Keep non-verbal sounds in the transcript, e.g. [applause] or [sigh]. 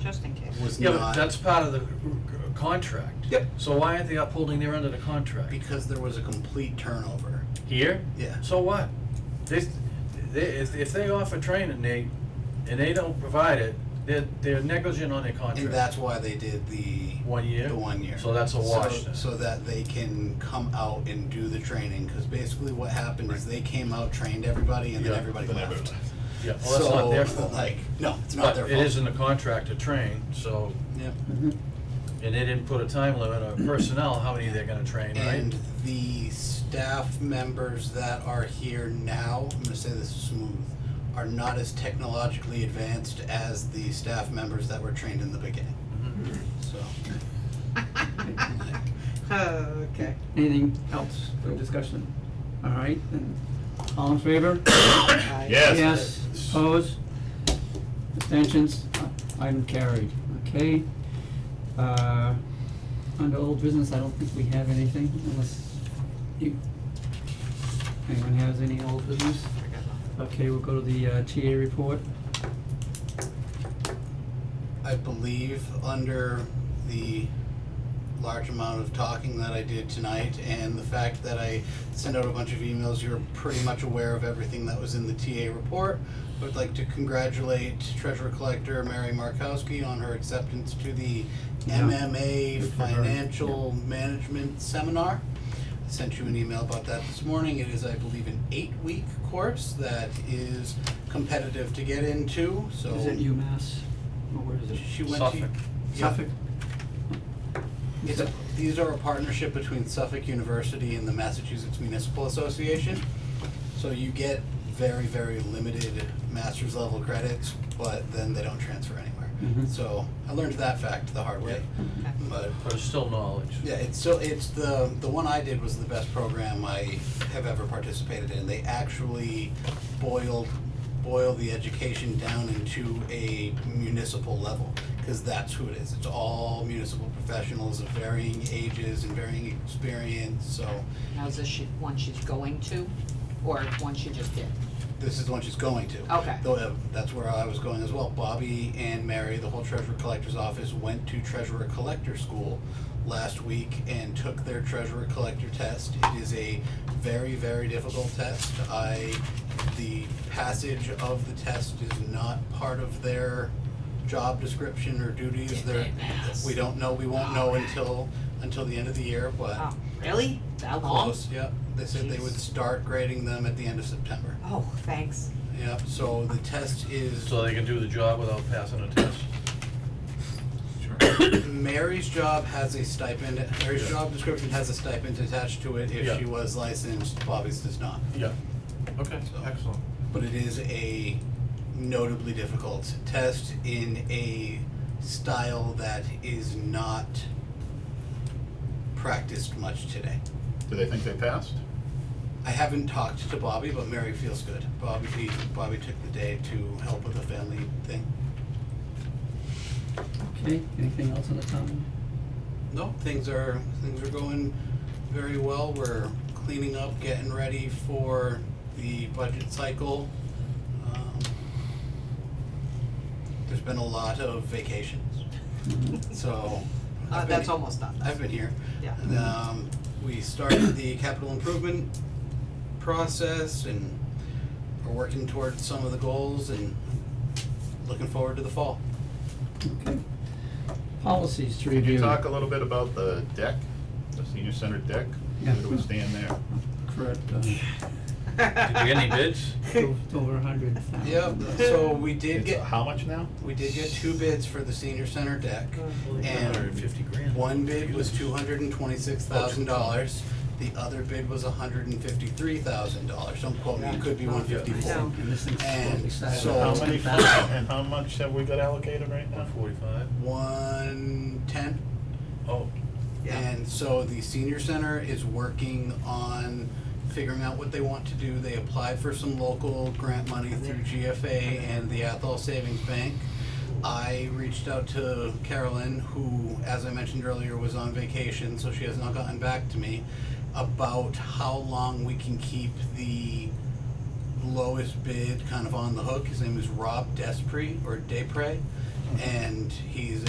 just in case. [laughs] was Yeah, but not. that's part of the uh, contract. Yep. So why aren't they upholding their end of the contract? Because there was a complete turnover. Here? Yeah. So what? They, they, if, if they offer training, they, and they don't provide it, they're, they're negligent on their contract. And that's why they did the. One year? The one year. So that's a wash So- then. So that they can come out and do the training, cause basically what happened is they came out, trained everybody, and then Yeah, everybody then left. everybody left. Yeah, well, that's not their fault. So, like, no, it's not But their it fault. is in the contract to train, so, Yep. Mm-hmm. and they didn't put a time limit on personnel, how many they're gonna train, right? And the staff members that are here now, I'm gonna say this is smooth, are not as technologically advanced as the staff members that were trained in the beginning, Mhm. so. [laughs] Okay. Anything else for discussion? All right, then, all in favor? Aye. Yes. Yes, opposed? Abstentions? Item carried, okay? Uh, Under old business, I don't think we have anything unless you, anyone has any old business? I got nothing. Okay, we'll go to the uh, TA report. I believe under the large amount of talking that I did tonight and the fact that I sent out a bunch of emails, you're pretty much aware of everything that was in the TA report. I would like to congratulate Treasurer Collector Mary Markowski on her acceptance to the Yeah. MMA Good for her. Financial Management Seminar. I sent you an email about that this morning. It is, I believe, an eight-week course that is competitive to get into, so. Is it UMass? Or where is it? She went to. Suffolk. Yeah. Suffolk? It's a, these are a partnership between Suffolk University and the Massachusetts Municipal Association. So you get very, very limited master's level credits, but then they don't transfer anywhere. Mhm. So I learned that fact the hard way. Okay. But But it's still knowledge. yeah, it's so it's the the one I did was the best program I have ever participated in. They actually boiled boil the education down into a municipal level because that's who it is. It's all municipal professionals of varying ages and varying experience. So Now, is this she, one she's going to, or one she just did? this is the one she's going to. Okay. Though uh, that's where I was going as well. Bobby and Mary, the whole treasurer collector's office, went to treasurer collector school last week and took their treasurer collector test. It is a very, very difficult test. I, the passage of the test is not part of their job description or duties. They're- We don't know, we won't know until, until the end of the year, but Oh, really? That long? Uh, close, yep. They said they would Oh. Jeez. start grading them at the end of September. Oh, thanks. Yep, so the test is, So they can do the job without passing a test. Mary's job has a stipend, Mary's job description has a stipend attached to it if Yeah. she was licensed, Bobby's does not. Yeah. Okay, So- excellent. But it is a notably difficult test in a style that is not practiced much today. Do they think they passed? I haven't talked to Bobby, but Mary feels good. Bobby, Bobby took the day to help with the family thing. Okay, anything else on the town? No, things are, things are going very well. We're cleaning up, getting ready for the budget cycle. Um, There's been a lot [laughs] of vacations, so. Uh, I've been- that's almost done. I've been here. Yeah. And, Um, we started the capital improvement process and are working towards some of the goals and looking forward to the fall. Okay. Policies to review. Could you talk a little bit about the deck, the senior center deck? Yeah. Where do we stand there? Correct, uh, [laughs] Did you get any bids? o- over a hundred thousand. Yep, so we did It's get. uh, How much now? We did get two bids for the senior center deck, Oh, Hundred and fifty grand. one bid was two hundred and twenty-six thousand dollars. The other bid was hundred and fifty-three thousand dollars, don't quote me, it could be one I know. fifty-four. And this thing's And totally silent. so- How it's many, and how much have we got allocated right now? One forty-five? One ten, Oh, Yeah. and so the senior center is working on figuring out what they want to do. They applied for some local grant money through GFA and the Athol Savings Bank. I reached out to Carolyn, who, as I mentioned earlier, was on vacation, so she has not gotten back to me, about how long we can keep the lowest bid kind of on the hook. His name is Rob Despre or Depre. and he's